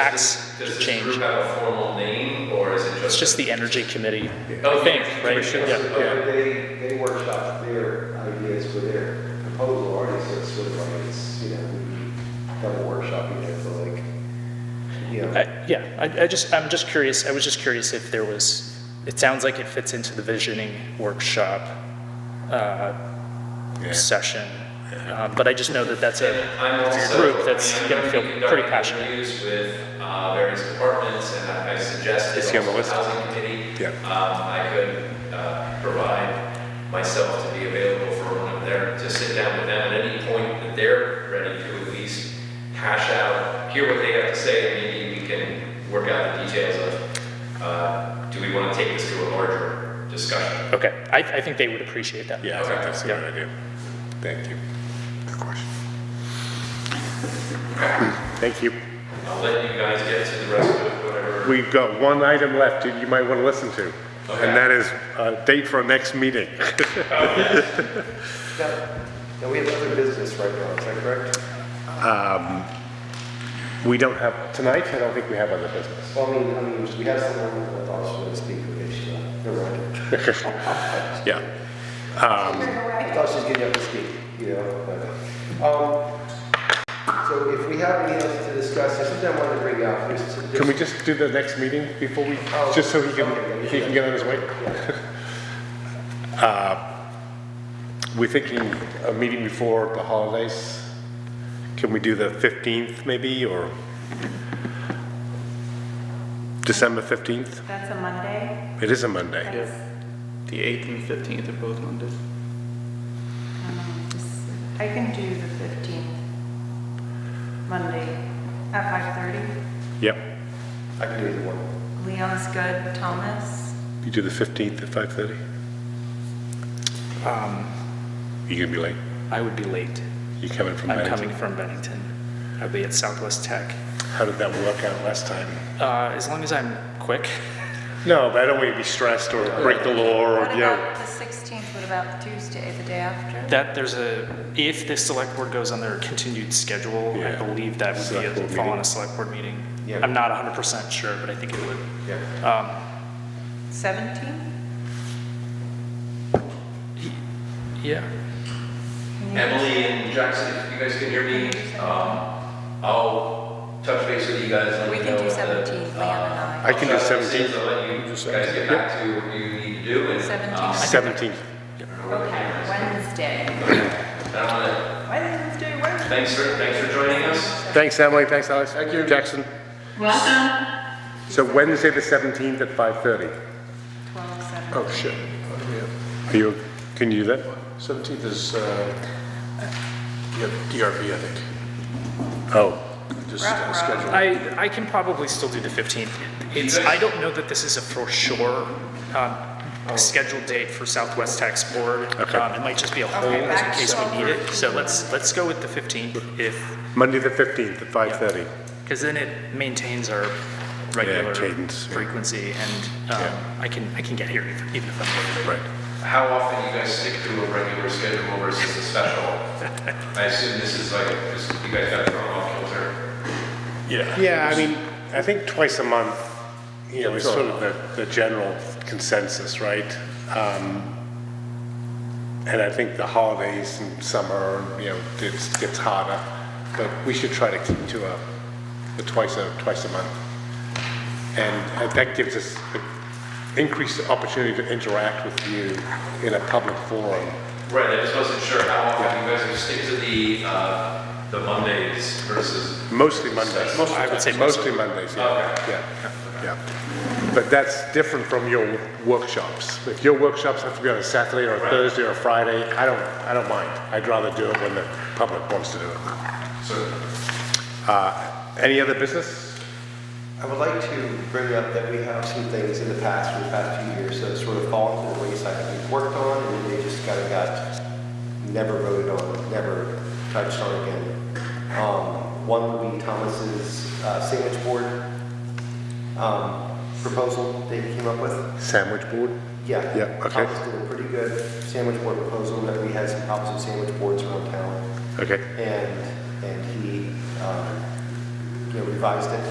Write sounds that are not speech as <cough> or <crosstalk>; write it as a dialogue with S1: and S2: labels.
S1: facts
S2: Does
S1: could
S2: this
S1: change.
S2: group have a formal name, or is it just?
S1: It's just the energy committee,
S2: Oh,
S1: I think,
S2: yeah,
S1: right?
S2: commission.
S1: Yeah, yeah.
S3: But they, they workshop their ideas for their proposal already, so it's sort of like, it's, you know, we double workshopping it for like, you know.
S1: I- Yeah, I, I just, I'm just curious, I was just curious if there was, it sounds like it fits into the visioning workshop uh, session, Um, but I just know that that's
S2: And
S1: a,
S2: I'm
S1: It's a
S2: also-
S1: group that's
S2: I mean,
S1: gonna
S2: I'm
S1: feel
S2: be
S1: pretty
S2: conducting
S1: passionate.
S2: Interviews with uh, various departments, and I I suggested
S4: Is he on the
S2: also
S4: list?
S2: housing committee.
S4: Yeah.
S2: Um, I could uh, provide myself to be available for one of their, to sit down with them at any point that they're ready to at least hash out, hear what they have to say, and maybe we can work out the details of, uh, do we want to take this to a larger discussion?
S1: okay, I, I think they would appreciate that.
S4: Yeah, I think that's a
S1: Yeah.
S4: good idea. Thank you. Good question.
S5: Thank you.
S2: I'll let you guys get to the rest of whatever.
S5: We've got one item left that you might want to listen to,
S2: Okay.
S5: and that is a date for our next meeting.
S3: Now, now we have other business right now, is that correct?
S5: We don't have, tonight, I don't think we have other business.
S3: Well, I mean, I mean, we have someone who thought she wanted to speak with issue, never mind.
S5: Yeah.
S3: I thought she was getting up to speak, you know, but, um, so if we have anything else to discuss, there's something I wanted to bring up. There's- there's-
S5: Can we just do the next meeting before we,
S3: Oh,
S5: just so he can,
S3: okay.
S5: he can get on his way? <laughs> Uh, We're thinking a meeting before the holidays. Can we do the 15th maybe, or December 15th?
S6: That's a Monday?
S5: It is a Monday.
S6: That's-
S7: The 8th and 15th are both Mondays.
S6: um, this- I can do the 15th, Monday at 5:30.
S5: Yep.
S3: I can do the one.
S6: Leon's good, Thomas,
S5: You do the 15th at 5:30? You gonna be late?
S1: Um, I would be late.
S5: You coming from
S1: I'm
S5: Bennington?
S1: coming from Bennington. I'll be at Southwest Tech.
S5: How did that work out last time?
S1: Uh, as long as I'm quick,
S5: No, but I don't want you to be stressed or break the law or,
S6: what
S5: you know.
S6: about the 16th, what about the Tuesday, the day after?
S1: that there's a, if the select board goes on their continued schedule, I
S5: Yeah.
S1: believe that would
S5: Select
S1: be a,
S5: board
S1: fall on
S5: meeting.
S1: a select board meeting.
S3: Yeah.
S1: I'm not hundred percent sure, but I think it would.
S3: Yeah.
S6: 17th?
S1: Yeah.
S2: Emily and Jackson, if you guys can hear me, um, I'll touch base with you guys and
S6: We
S2: let you
S6: can
S2: know. what
S6: do
S2: the, uh,
S6: 17, Leon and I.
S5: I can do
S2: I'll try to see
S5: 17.
S2: if I'll let you guys get back to what you need to do and.
S6: 17.
S2: um,
S5: 17th.
S6: Okay, Wednesday.
S2: And I wanna,
S6: Wednesday, Wednesday.
S2: thanks for, thanks for joining us.
S5: Thanks, Emily, thanks, Alex. Thank you. Jackson. Welcome. So Wednesday, the 17th at 5:30.
S6: 12, 17.
S8: Oh, shit. Oh, yeah.
S5: Are you, can you do that?
S8: 17th is, uh, yeah, DRB, I think.
S5: Oh,
S8: Just
S6: Right,
S8: uh,
S6: right.
S8: schedule.
S1: I, I can probably still do the 15th. It's, I don't know that this is a for sure um, scheduled date for Southwest Tax Board.
S5: Oh. Okay.
S1: Um, It might just be a hold
S6: Okay,
S1: in
S6: back
S1: case
S6: to-
S1: we need it. So let's, let's go with the 15th if,
S5: Monday, the 15th at 5:30.
S1: because then it maintains our regular
S5: cadence, yeah.
S1: frequency and um,
S5: Yeah.
S1: I can, I can get here if- even if I'm late.
S5: Right.
S2: How often you guys stick to a regular schedule versus a special? I assume this is like, just, you guys got thrown off kilter.
S5: Yeah. Yeah, I mean, I think twice a month, you know, is sort of the, the general consensus, right? Um, And I think the holidays and summer, you know, it's, gets harder, but we should try to keep to a, the twice a, twice a month. And uh, that gives us a- increased opportunity to interact with you in a public forum.
S2: Right, I just wasn't sure how often you guys would stick to the, uh, the Mondays versus
S5: Mostly Mondays.
S1: I would say
S5: Mostly Mondays, yeah,
S2: Okay.
S5: yeah, yeah. But that's different from your workshops. If your workshops have to be on a Saturday or a Thursday or a Friday, I don't, I don't mind. I'd rather do it when the public wants to do it. Uh,
S2: So
S5: Any other business?
S3: I would like to bring up that we have some things in the past, for the past few years, that sort of fallen to the wayside that we've worked on, and then they just kind of got, never voted on, never touched on again. Um, one would be Thomas's uh, sandwich board um, proposal that he came up with.
S5: Sandwich board?
S3: Yeah.
S5: Yeah, okay.
S3: Thomas did a pretty good sandwich board proposal, that we had some problems with sandwich boards around town,
S5: Okay.
S3: and, and he, um, you know, revised it